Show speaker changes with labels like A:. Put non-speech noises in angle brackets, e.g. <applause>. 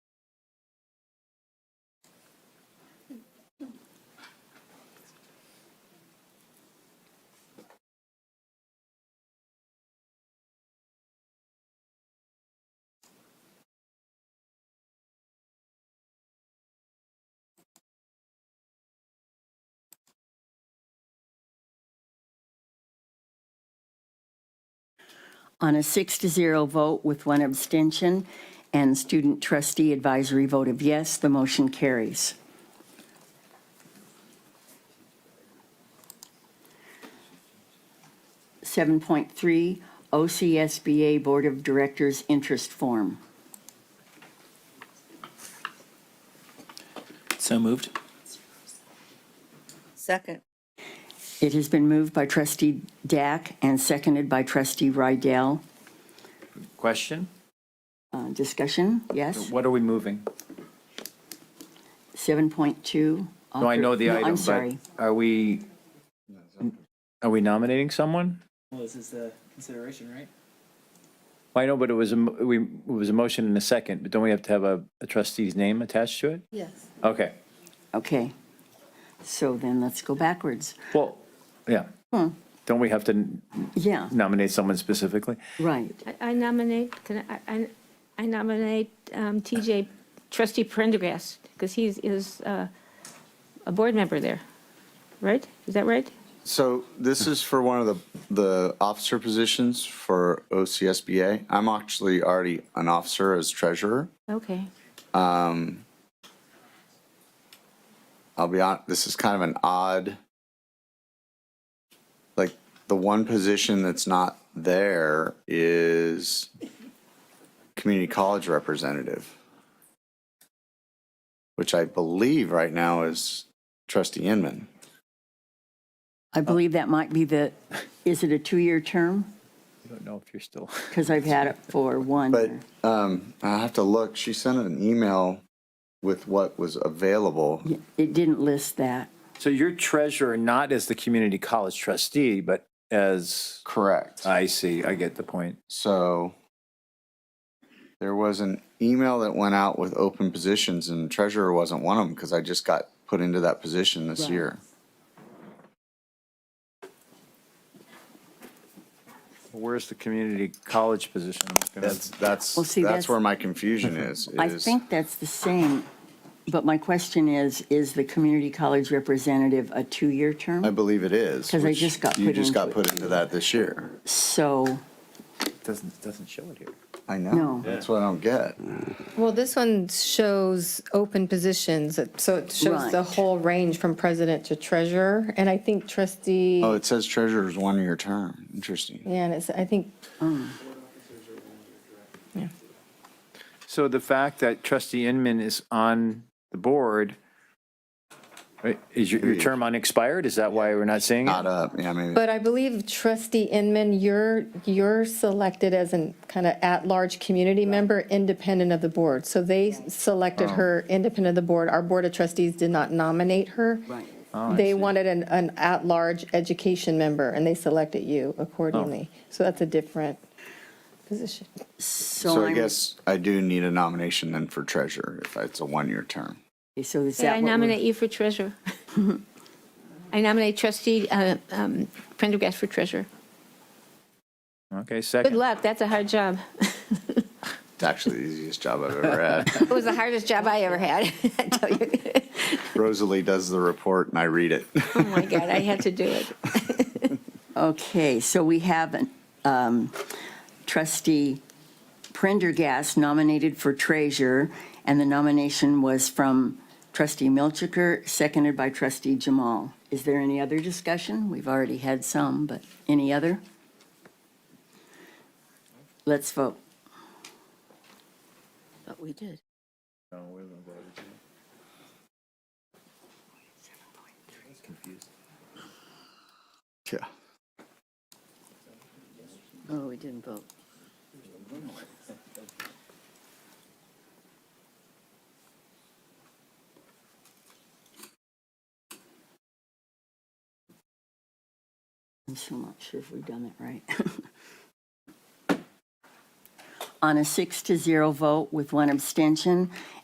A: on a six to zero vote with one abstention and student trustee advisory vote of yes, the motion carries. Seven point three, OCSBA Board of Directors Interest Form.
B: So moved.
C: Second.
A: It has been moved by trustee Dack and seconded by trustee Rydell.
B: Question?
A: Uh, Discussion, yes?
B: What are we moving?
A: 7.2.
B: No, I know the
A: No,
B: item,
A: I'm
B: but
A: sorry.
B: Are we, are we nominating someone?
D: Well, this is the consideration, right?
B: I know, but it was, a mo- we, it was a motion and a second, but don't we have to have a a trustee's name attached to it?
C: Yes.
B: Okay,
A: Okay. So then let's go backwards.
B: well, yeah. Don't we have to n-
A: Yeah,
B: nominate someone specifically?
A: right.
E: I- I nominate, can I- I, I nominate um, TJ, trustee Prendergast, because he is uh, a board member there, right? Is that right?
F: So this is for one of the, the officer positions for OCSBA. I'm actually already an officer as treasurer.
E: Okay.
F: Um, I'll be honest, this is kind of an odd, like, the one position that's not there is community college representative, which I believe right now is trustee Inman. Oh.
A: I believe that might be the, is it a two-year term?
B: I don't know if you're still,
A: Because I've had it for one.
F: But um, I have to look. She sent an email with what was available.
A: Yeah, It didn't list that.
B: so you're treasurer, not as the community college trustee, but as,
F: Correct.
B: I see, I get the point.
F: So there was an email that went out with open positions, and treasurer wasn't one of them because I just got put into that position this
A: Right.
F: year.
B: Where's the community college position? I'm looking at-
F: That's that's
A: Well, see,
F: that's
A: that's-
F: where my confusion is.
A: <laughs> I
F: is-
A: think that's the same, but my question is, is the community college representative a two-year
F: I
A: term?
F: believe it is
A: 'Cause I
F: which
A: just got
F: you
A: put
F: just
A: into
F: got
A: it.
F: put into that this year.
A: So,
B: Doesn't, doesn't show it here.
F: I know.
A: No.
F: That's what I don't get.
G: Well, this one shows open positions, so it shows the
A: Right.
G: whole range from president to treasurer. And I think trustee,
F: Oh, it says treasurer's one year term. Interesting.
G: yeah, and it's, I think,
B: So the fact that trustee Inman is on the board, right, is your, your term unexpired? Is that why we're not seeing
F: Not
B: it?
F: up. Yeah, maybe.
G: but I believe trustee Inman, you're, you're selected as an kind of at-large community member, independent of the board. So they selected her independent of the board. Our board of trustees did not nominate her.
A: Right.
G: They wanted an, an at-large education member, and they selected you accordingly. So that's a different position.
A: so
F: So I
A: I'm,
F: guess I do need a nomination then for treasurer if it's a one-year term.
A: so is
E: Hey, I
A: that what
E: nominate
A: we're?
E: you for treasurer. <laughs> I nominate trustee uh, um, Prendergast for treasurer.
B: Okay,
E: Good
B: second.
E: luck, that's a hard job.
F: It's actually the easiest job I've ever had.
E: <laughs> It was the hardest job I ever had, <laughs> I tell you.
F: Rosalie does the report and I read it.
E: Oh, my God, I had to do it.
A: Okay, so we have an, um, trustee Prendergast nominated for treasurer, and the nomination was from trustee Milchiker, seconded by trustee Jamal. Is there any other discussion? We've already had some, but any other? Let's vote.
C: But we did.
F: Yeah.
C: Oh, we didn't vote.
A: I'm still not sure if we've done it right. <laughs> On a six to zero vote with one abstention,